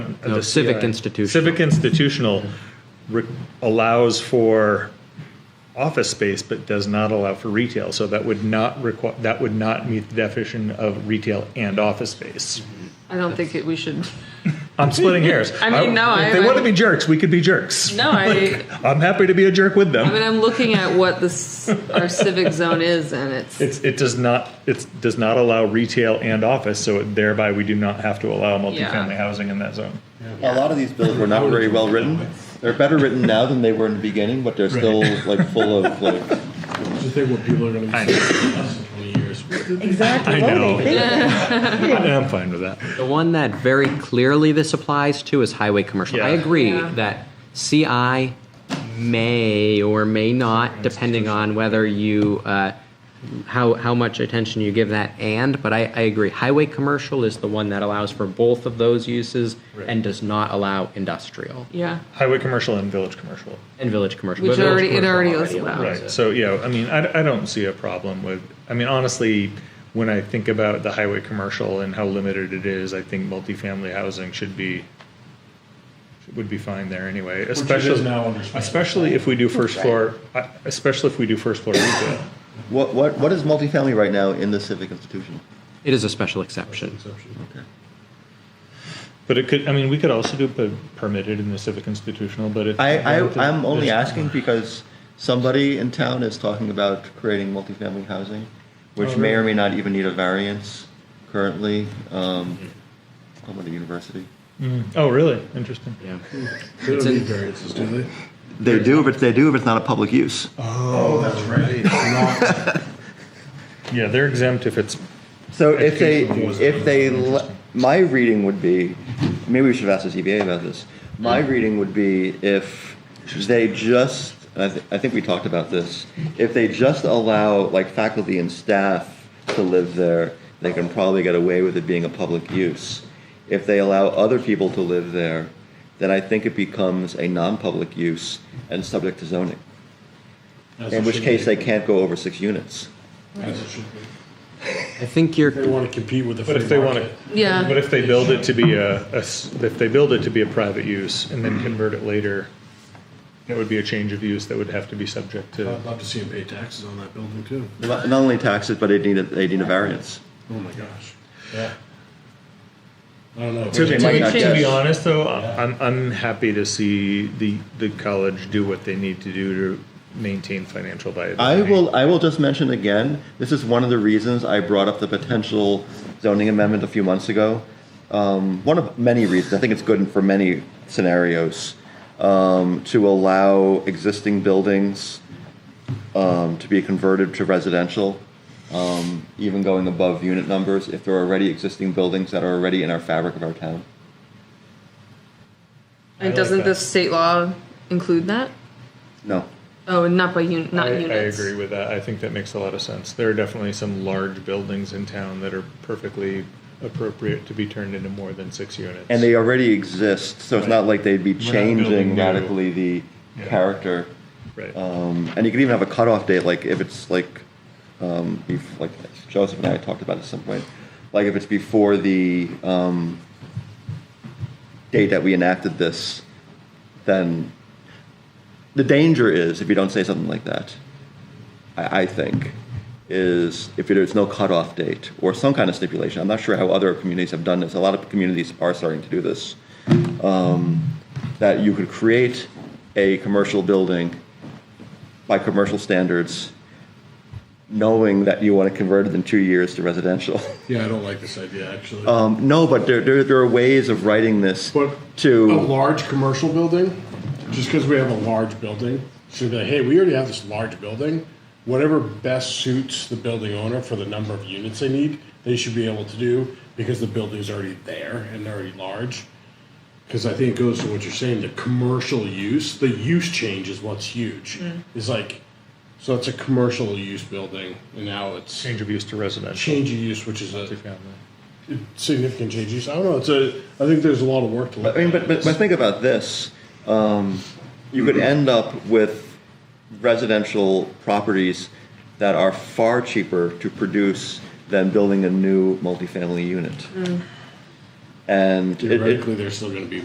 one. of No, the civic CI. institutional. Civic institutional re- allows for office space, but does not allow for retail. So that would not require that would not meet the definition of retail and office space. I don't think it, we should. I'm splitting hairs. I mean, no, if I- they I- want to be jerks. We could be jerks. No, I. I'm happy to be a jerk with them. I mean, I'm looking at what this our civic zone is, and it's It's, it does not it does not allow retail and office, so thereby we do not have to allow multifamily housing in that zone. A lot of these bills were not very well written. They're better written now than they were in the beginning, but they're still like full of like. Just think what people are going to be saying in less than 20 years. Exactly. I What know. were they thinking? I'm fine with that. The one that very clearly this applies to is highway commercial. I Yeah. agree Yeah. that CI may or may not, depending on whether you, uh, how, how much attention you give that and, but I, I agree. Highway commercial is the one that allows for both of those uses and does not allow industrial yeah. Highway commercial and village commercial. and village commercial. Which but village already- it commercial already is allows allowed. it. Right. So yeah, I mean, I, I don't see a problem with. I mean, honestly, when I think about the highway commercial and how limited it is, I think multifamily housing should be would be fine there anyway. is Especially now under special. especially if we do first floor. I- Especially if we do first floor retail. What what what is multifamily right now in the civic institution? It is a special exception. But it could. I mean, we could also do per- permitted in the civic institutional. But if I, I I'm only there's- asking because somebody in town is talking about creating multifamily housing, which may or may not even need a variance currently. Um, I'm at a university. Oh, really? Interesting. Yeah. They don't need variances, do they? They do, but they do if it's not a public use. Oh, that's right. Yeah, they're exempt if it's. So if they, Educational was if they, le- my reading would be, maybe we should have asked the ZBA about this. My reading would be if they just, I, th- I think we talked about this, if they just allow like faculty and staff to live there, they can probably get away with it being a public use. If they allow other people to live there, then I think it becomes a non-public use and subject to zoning. As In it which should case be. they can't go over six units. As it should be. I think you're, They want to compete with the But free if they want market. to. Yeah. But if they build it to be a, a s- if they build it to be a private use and then Mm-hmm. convert it later, that would be a change of use that would have to be subject to. I'd love to see them pay taxes on that building too. Not not only taxes, but they need, a- they need a variance. Oh my gosh. Yeah. I don't know. To, They to might be- not to get be it. honest, though, I- I'm, I'm happy to see the, the college do what they need to do to maintain financial I viability. will, I will just mention again, this is one of the reasons I brought up the potential zoning amendment a few months ago. Um, one of many reasons, I think it's good for many scenarios, um, to allow existing buildings um, to be converted to residential, um, even going above unit numbers, if there are already existing buildings that are already in our fabric of our town. And like doesn't that. the state law include that? No. Oh, and not by un- I, not I units. agree with that. I think that makes a lot of sense. There are definitely some large buildings in town that are perfectly appropriate to be turned into more than six units. And they already exist, so it's not like they'd be building changing new. radically the Yeah. character. Right. Um, and you could even have a cutoff date, like if it's like, um, if, like Joseph and I talked about at some point, like if it's before the um, date that we enacted this, then the danger is if you don't say something like that, I, I think, is if there's no cutoff date or some kind of stipulation. I'm not sure how other communities have done this. A lot of communities are starting to do this Um, that you could create a commercial building by commercial standards, knowing that you want to convert it in two years to residential. Yeah, I don't like this idea actually. Um, no, but there, there, there are ways of writing this But a to. large commercial building, just because we have a large building, should be like, hey, we already have this large building. Whatever best suits the building owner for the number of units they need, they should be able to do because the building's already there and they're already large. Because I think it goes to what you're saying, the commercial use, the use change is what's huge. It's like, so it's a commercial use building, and now it's Change of use to residential. change of use, which is a multifamily. significant change of use. I don't know. It's a. I think there's a lot of work to. I Look mean, at but, but, but think about this. Um, you could end up with residential properties that are far cheaper to produce than building a new multifamily unit. And it- it, there's still going to be